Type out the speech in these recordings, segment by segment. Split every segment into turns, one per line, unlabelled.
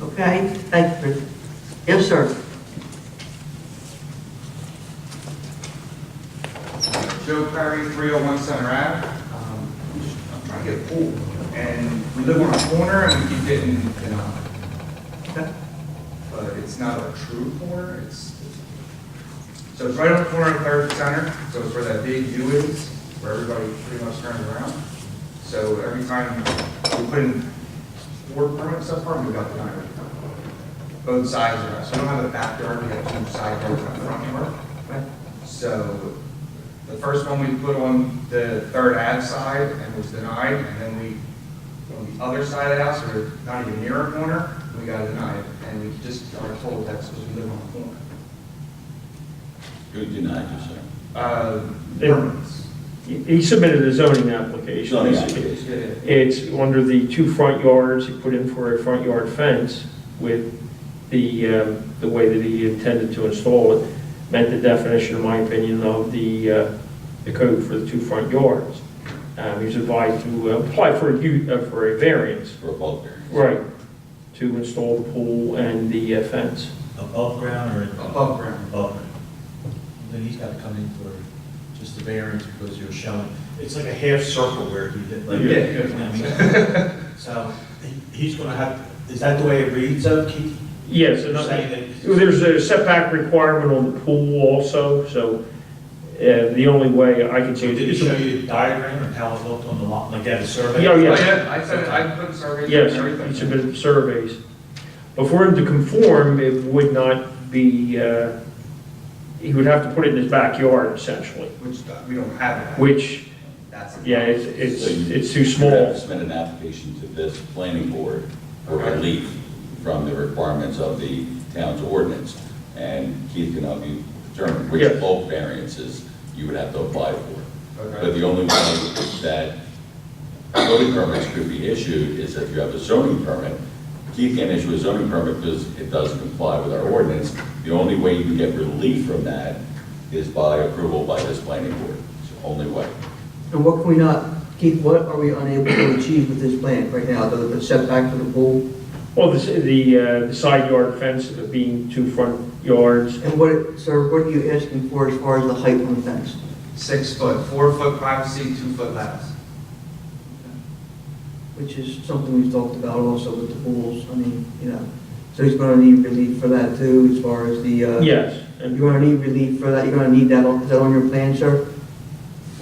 Okay, thank you, Chris. Yes, sir.
Joe Perry, 301 Center Ave. Um, I'm trying to get a pool, and we live on a corner and we keep getting denied. But it's not a true corner, it's, so it's right on the corner of Third Center, so it's where that big U is, where everybody pretty much turns around. So every time we put in four permits up front, we got denied. Both sides are, so we don't have a backyard, we have two side yards and a front yard. So the first one we put on the third ad side and was denied, and then we, on the other side of the house, or not even near a corner, we got denied, and we just are told that's because we live on a corner.
Who denied you, sir?
Uh,
They-
permits.
He submitted a zoning application.
Zoning application.
Yeah.
It's under the two front yards, he put in for a front yard fence with the, um, the way that he intended to install it, met the definition, in my opinion, of the, uh, the code for the two front yards. Um, He was advised to apply for a, u- uh, for a variance,
For a bulk variance?
right, to install the pool and the uh, fence.
Above ground or?
Above ground.
Above ground. Then he's got to come in for just the variance because you're showing, it's like a half circle where he did, like.
Yeah.
You know what I mean? So he- he's going to have, is that the way it reads though, Keith?
Yes,
You're
and I-
saying that-
There's a setback requirement on the pool also, so uh, the only way I can
So
change
did
it
he
is...
show you the diagram of how it looked on the lot, like that survey?
Yeah, yeah.
Oh, yeah, I said, I put surveys
Yes,
and everything.
he submitted surveys. But for him to conform, it would not be, uh, he would have to put it in his backyard essentially,
Which uh, we don't have that.
which,
That's. the-
yeah, it's, it's
So you-
it's too
You have to
small.
submit an application to this planning board for
Okay.
relief from the requirements of the town's ordinance. And Keith can help you determine which
Yes.
bulk variances you would have to apply for. But
Okay.
the only way that building permits could be issued is if you have a zoning permit. Keith can't issue a zoning permit because it doesn't comply with our ordinance. The only way you can get relief from that is by approval by this planning board. It's the only way.
And what can we not, Keith, what are we unable to achieve with this plan right now, the the setback for the pool?
Well, the, s- the, uh, the side yard fence being two front yards,
And what, sir, what are you asking for as far as the height on the fence?
Six foot, four foot privacy, two foot lattice.
Which is something we've talked about also with the pools, I mean, you know, so he's gonna need relief for that too, as far as the, uh...
yes. And
You're gonna need relief for that, you're gonna need that, on- is that on your plan, sir?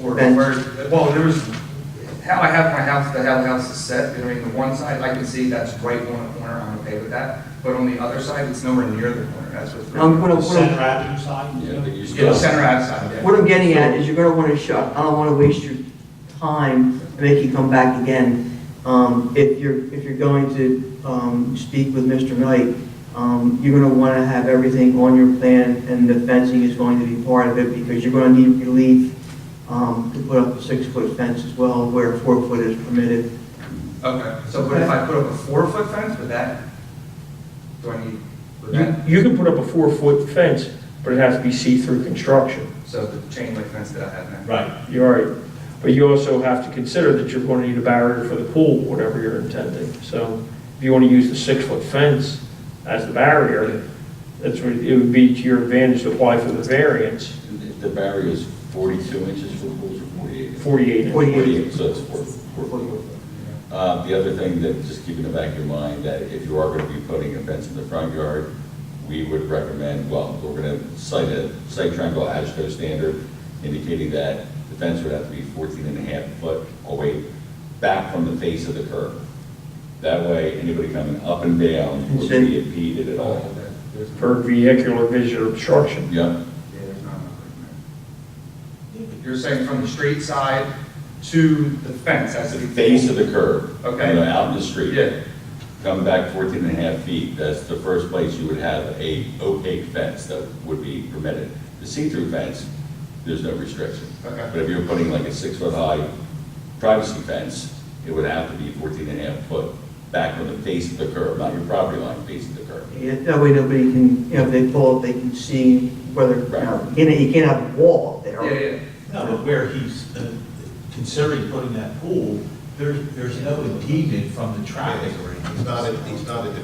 for
Bench.
where, well, there was, how I have my house, the how the house is set, you know, I mean, the one side, I can see that's right on the corner, I'm okay with that, but on the other side, it's nowhere near the corner, that's what's.
Now, I'm gonna-
The center avenue side?
Yeah, but you
Yeah, the
still.
center outside, yeah.
What I'm getting at is you're gonna wanna shut, I don't wanna waste your time and make you come back again. Um, if you're, if you're going to, um, speak with Mr. Knight, um, you're gonna wanna have everything on your plan and the fencing is going to be part of it because you're gonna need relief, um, to put up a six-foot fence as well where four foot is permitted.
Okay, so what if I put up a four-foot fence with that? Do I need, with
you,
that,
you can put up a four-foot fence, but it has to be see-through construction.
so the chain link fence that I have now?
Right.
You're right. But you also have to consider that you're going to need a barrier for the pool, whatever you're intending. So if you want to use the six-foot fence as the barrier, that's what, it would be to your advantage to apply for the variance,
If The barrier is 42 inches for pools or 48?
48 inch.
48.
So it's four, four foot. Uh, The other thing that, just keep in the back of your mind, that if you are going to be putting a fence in the front yard, we would recommend, well, we're going to cite a, site triangle ASHTO standard indicating that the fence would have to be 14 and a half foot away back from the face of the curb. That way, anybody coming up and down would be impeded at all.
Oh, There's no-
For vehicular visual obstruction.
Yep.
Yeah, there's not enough room there. You're saying from the street side to the fence, that's
That's
the.
the face of the curb.
Okay.
You know, out in the street.
Yeah.
Come back 14 and a half feet, that's the first place you would have a opaque fence that would be permitted. The see-through fence, there's no restriction.
Okay.
But if you're putting like a six-foot-high privacy fence, it would have to be 14 and a half foot back on the face of the curb, not your property line, face of the curb.
Yeah, That way nobody can, you know, if they pull up, they can see whether, you know, you can't- you can't have a wall up there.
Yeah, yeah,
No, but where he's uh, considering putting that pool, there's, there's no impediment from the traffic or anything.
It's not, a- it's not a